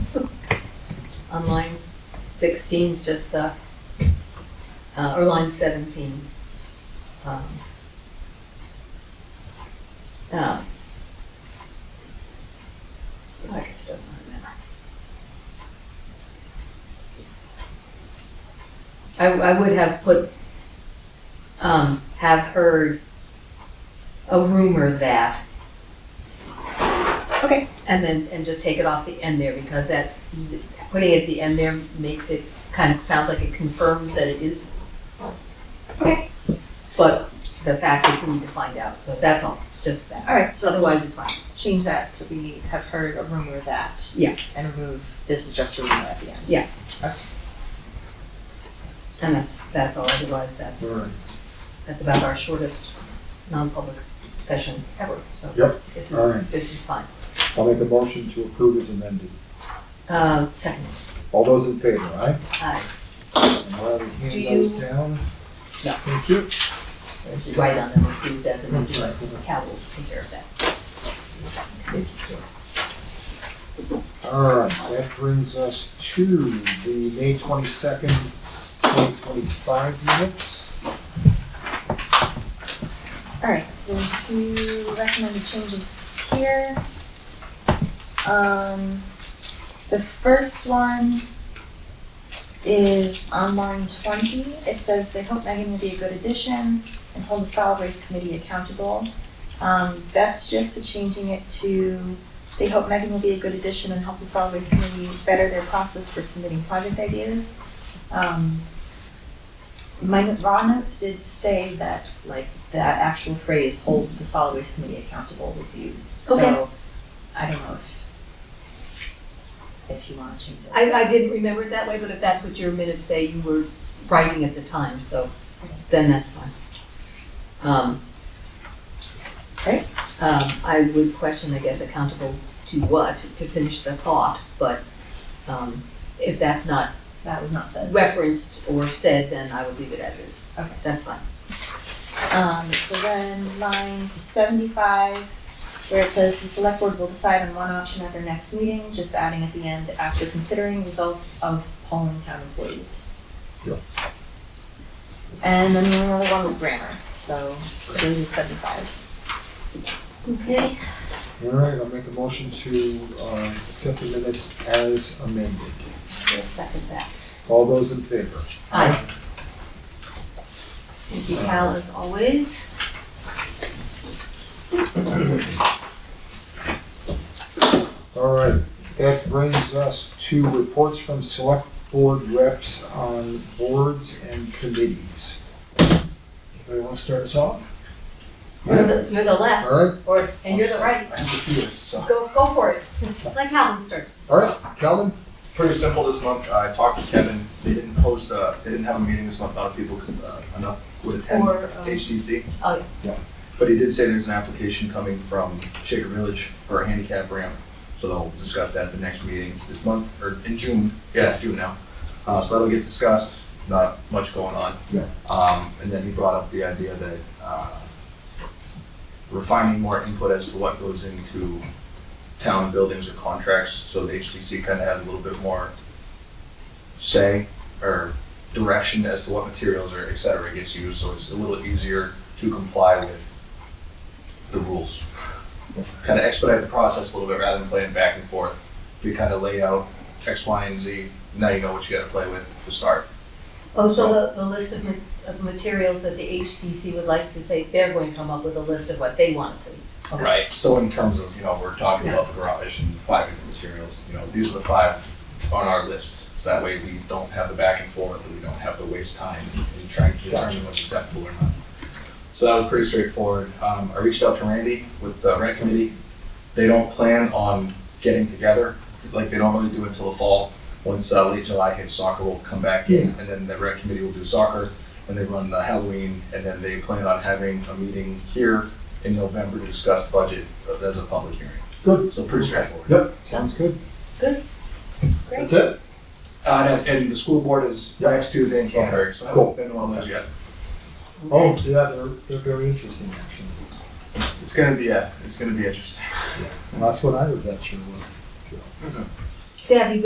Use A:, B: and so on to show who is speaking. A: on line sixteen is just the, uh, or line seventeen. um, uh, I guess it doesn't really matter. I, I would have put, um, have heard a rumor that
B: Okay.
A: and then, and just take it off the end there, because that, putting it at the end there makes it, kind of sounds like it confirms that it is.
B: Okay.
A: But the fact is, we need to find out, so that's all, just that.
B: All right,
A: So otherwise, it's fine.
B: change that to we have heard a rumor that.
A: Yeah.
B: And remove, this is just a rumor at the end.
A: Yeah. And that's, that's all, otherwise, that's,
C: All right.
A: that's about our shortest non-public session ever, so.
C: Yep,
A: This
C: all
A: is,
C: right.
A: this is fine.
C: I'll make a motion to approve as amended.
A: Uh, second, uh,
C: All those in favor, aye?
A: Aye.
C: And I'll hand
B: Do
C: those
B: you-
C: down.
A: Yeah.
C: Thank you.
A: if you write on them, if you designate,
C: Right.
A: Cal will take care of that.
C: Thank you, sir. All right, that brings us to the May twenty-second, twenty twenty-five minutes.
B: All right, so there's a few recommended changes here. Um, the first one is on line twenty. It says they hope Megan will be a good addition and hold the solid waste committee accountable. Um, that's just to changing it to they hope Megan will be a good addition and help the solid waste committee better their process for submitting project ideas. Um, my raw notes did say that like the actual phrase hold the solid waste committee accountable was used.
A: Okay.
B: So I don't know if if you wanna change it.
A: I, I didn't remember it that way, but if that's what your minutes say, you were writing at the time, so then that's fine. Um.
B: Okay.
A: Um, I would question, I guess, accountable to what, to finish the thought, but, um, if that's not
B: That was not said.
A: referenced or said, then I would leave it as is.
B: Okay.
A: That's fine.
B: Um, so then line seventy-five, where it says the select board will decide on one option at their next meeting, just adding at the end, after considering results of polling town employees.
C: Yeah.
B: And then the other one was grammar, so it's really just seventy-five.
A: Okay.
C: All right, I'll make a motion to, uh, accept the minutes as amended.
A: We'll second that.
C: All those in favor?
A: Aye. Thank you, Cal, as always.
C: All right, that brings us to reports from select board reps on boards and committees. Anybody want to start us off?
A: You're the, you're the left,
C: All right,
A: or, and you're the right.
D: I'm defeated, so.
A: Go, go for it. Like Calvin starts.
C: all right, Calvin?
D: Pretty simple this month, I talked to Kevin, they didn't host, uh, they didn't have a meeting this month, a lot of people could, uh, enough would attend
A: Or, um,
D: HTC.
A: oh, yeah.
D: Yeah, but he did say there's an application coming from Shaker Village for a handicap ramp, so they'll discuss that at the next meeting this month, or in June, yeah, it's June now. Uh, so that'll get discussed, not much going on.
C: Yeah.
D: Um, and then he brought up the idea that, uh, refining more input as to what goes into town buildings or contracts, so the HTC kind of has a little bit more say or direction as to what materials or et cetera gets used, so it's a little easier to comply with the rules. Kind of expedite the process a little bit rather than playing back and forth. We kind of lay out X, Y, and Z, now you know what you gotta play with to start.
A: Oh, so the, the list of, ma- of materials that the HDC would like to say, they're going to come up with a list of what they want to see.
D: Right. So in terms of, you know, we're talking about the garage and five different materials, you know, these are the five on our list. So that way we don't have the back and forth, and we don't have to waste time in trying to determine what's acceptable or not. So that was pretty straightforward. Um, I reached out to Randy with the rent committee. They don't plan on getting together, like they don't really do until the fall. Once uh, late July hits, soccer will come back in, and then the rent committee will do soccer, and they run the Halloween, and then they plan on having a meeting here in November to discuss budget uh, as a public hearing.
C: Good.
D: So pretty straightforward.
C: Yep, sounds good.
B: Great.
C: it?
D: Uh, and, and the school board is next Tuesday in Canterbury, so I
C: Cool.
D: haven't been to one of those yet.
C: Oh, yeah, they're, they're very interesting, actually.
D: It's gonna be, a. it's gonna be interesting.
C: And that's what I was at your was.
A: Deb, you